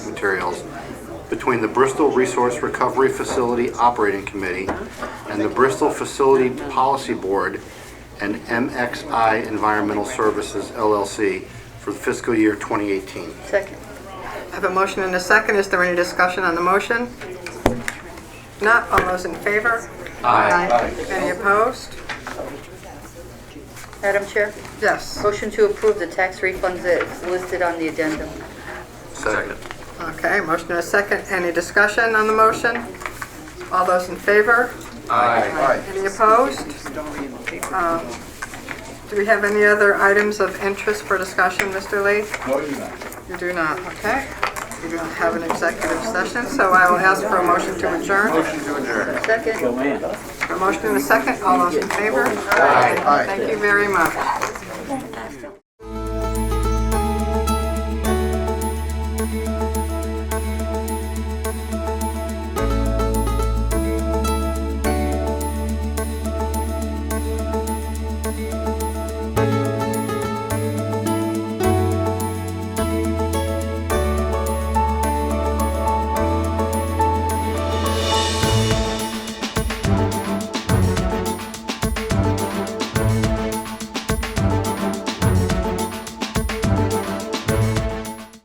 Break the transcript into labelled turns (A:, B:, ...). A: materials between the Bristol Resource Recovery Facility Operating Committee and the Bristol Facility Policy Board and MXI Environmental Services LLC for the fiscal year 2018.
B: Second.
C: I have a motion and a second. Is there any discussion on the motion? Not, all those in favor?
B: Aye.
C: Any opposed?
B: Madam Chair,
C: Yes.
B: motion to approve the tax refunds that's listed on the addendum.
A: Second.
C: Okay, motion and a second. Any discussion on the motion? All those in favor?
A: Aye.
C: Any opposed? Um, Do we have any other items of interest for discussion, Mr. Lee?
D: No, you do not.
C: You do not, okay. We do not have an executive session, so I will ask for a motion to adjourn.
B: Second.
C: A motion and a second. All those in favor? Aye. Thank you very much.